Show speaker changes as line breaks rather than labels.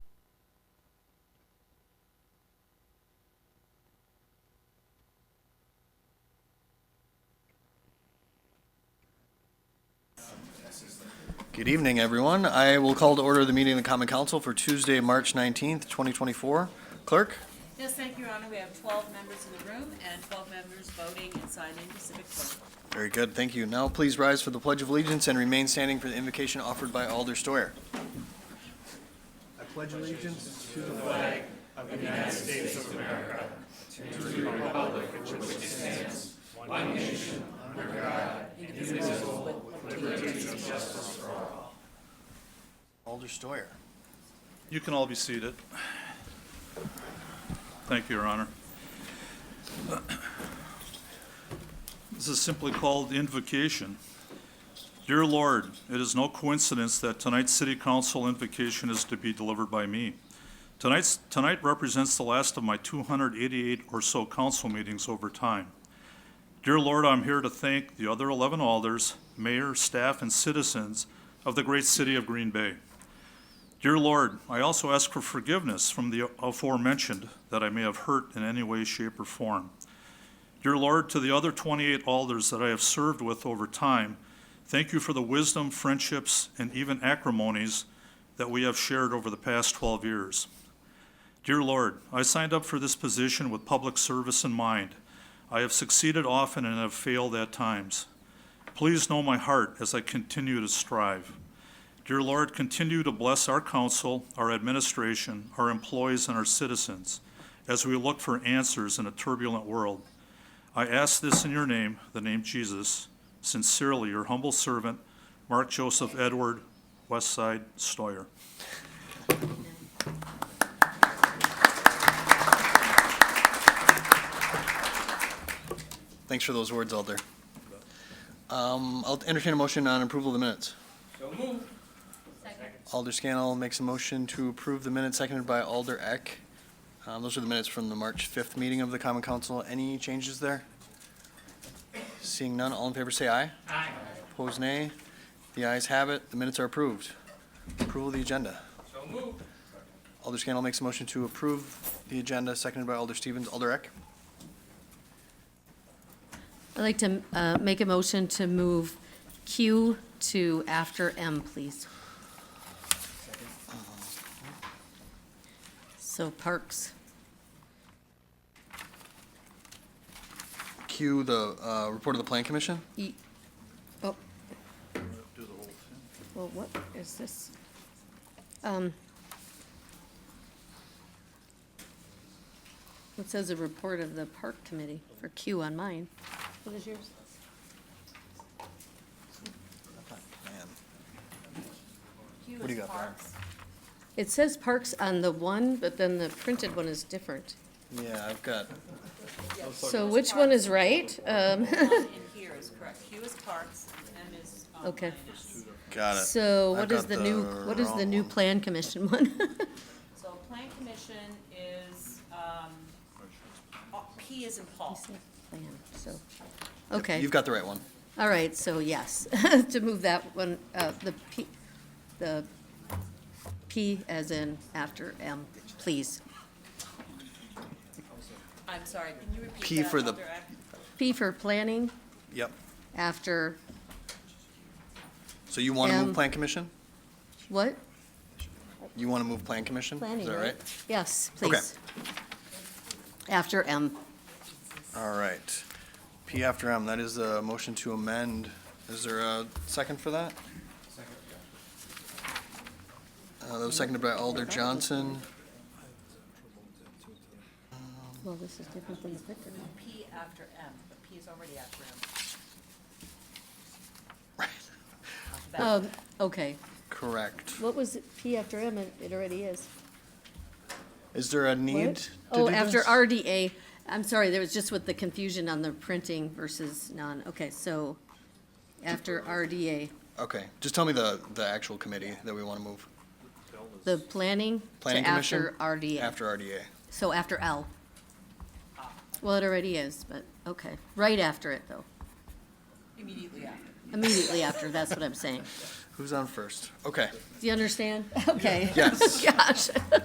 Good evening, everyone. I will call to order the meeting of the Common Council for Tuesday, March 19th, 2024. Clerk?
Yes, thank you, Your Honor. We have twelve members in the room and twelve members voting and signing the civic clerk.
Very good, thank you. Now please rise for the Pledge of Allegiance and remain standing for the invocation offered by Alder Steyer. I pledge allegiance to the flag of the United States of America
You can all be seated. Thank you, Your Honor. This is simply called the invocation. Dear Lord, it is no coincidence that tonight's City Council invocation is to be delivered by me. Tonight's, tonight represents the last of my 288 or so council meetings over time. Dear Lord, I'm here to thank the other 11 alders, mayor, staff, and citizens of the great city of Green Bay. Dear Lord, I also ask for forgiveness from the aforementioned that I may have hurt in any way, shape, or form. Dear Lord, to the other 28 alders that I have served with over time, thank you for the wisdom, friendships, and even acrimonies that we have shared over the past 12 years. Dear Lord, I signed up for this position with public service in mind. I have succeeded often and have failed at times. Please know my heart as I continue to strive. Dear Lord, continue to bless our council, our administration, our employees, and our citizens as we look for answers in a turbulent world. I ask this in your name, the name Jesus. Sincerely, your humble servant, Mark Joseph Edward, Westside Stoyer.
Thanks for those words, Alder. Um, I'll entertain a motion on approval of the minutes.
Second.
Alder Scannell makes a motion to approve the minutes, seconded by Alder Eck. Um, Those are the minutes from the March 5th meeting of the Common Council. Any changes there? Seeing none, all in favor say aye. Aye. Opposed, nay. The ayes have it, the minutes are approved. Approval of the agenda.
So moved.
Alder Scannell makes a motion to approve the agenda, seconded by Alder Stevens. Alder Eck?
I'd like to uh, make a motion to move Q to after M, please. So Parks,
Cue the uh, report of the Plan Commission.
E, oh. Well, what is this? Um, It says a report of the Park Committee for Q on mine. What is yours?
Oh, Man,
Hugh
What do you
is
got there?
Parks.
It says Parks on the one, but then the printed one is different.
Yeah, I've got,
So which one is right? Um,
One in here is correct. Hugh is Parks and M is. um,
Okay.
finance.
got it.
So
I've
what is
got
the new,
the
what is the new
wrong one.
plan commission one?
So Plan Commission is, um, uh, P is in Paul.
Plan, So, okay,
You've got the right one.
all right, so yes, to move that one, uh, the P, the P as in after M, please.
I'm sorry, can you repeat that?
P for the-
Alder Eck?
P for planning,
Yep.
after
So you want to move
Um,
Plan Commission?
what?
You want to move Plan Commission?
Planning,
Is that right?
right? Yes, please. After M,
All right. P after M, that is the motion to amend. Is there a second for that? Uh, that was seconded by Alder Johnson.
well, this is different than the picture.
P after M, but P is already after M. Alphabetical.
Um, okay,
Correct.
what was it? P after M? It it already is.
Is there a need to
What?
do
Oh, after
this?
RDA, I'm sorry, there was just with the confusion on the printing versus non, okay, so after RDA,
Okay, just tell me the, the actual committee that we want to move.
the planning to
Planning Commission?
after RDA,
After RDA.
so after L. Well, it already is, but, okay, right after it, though,
Immediately after.
immediately after, that's what I'm saying.
Who's on first? Okay,
Do you understand? Okay.
yes.
Gosh.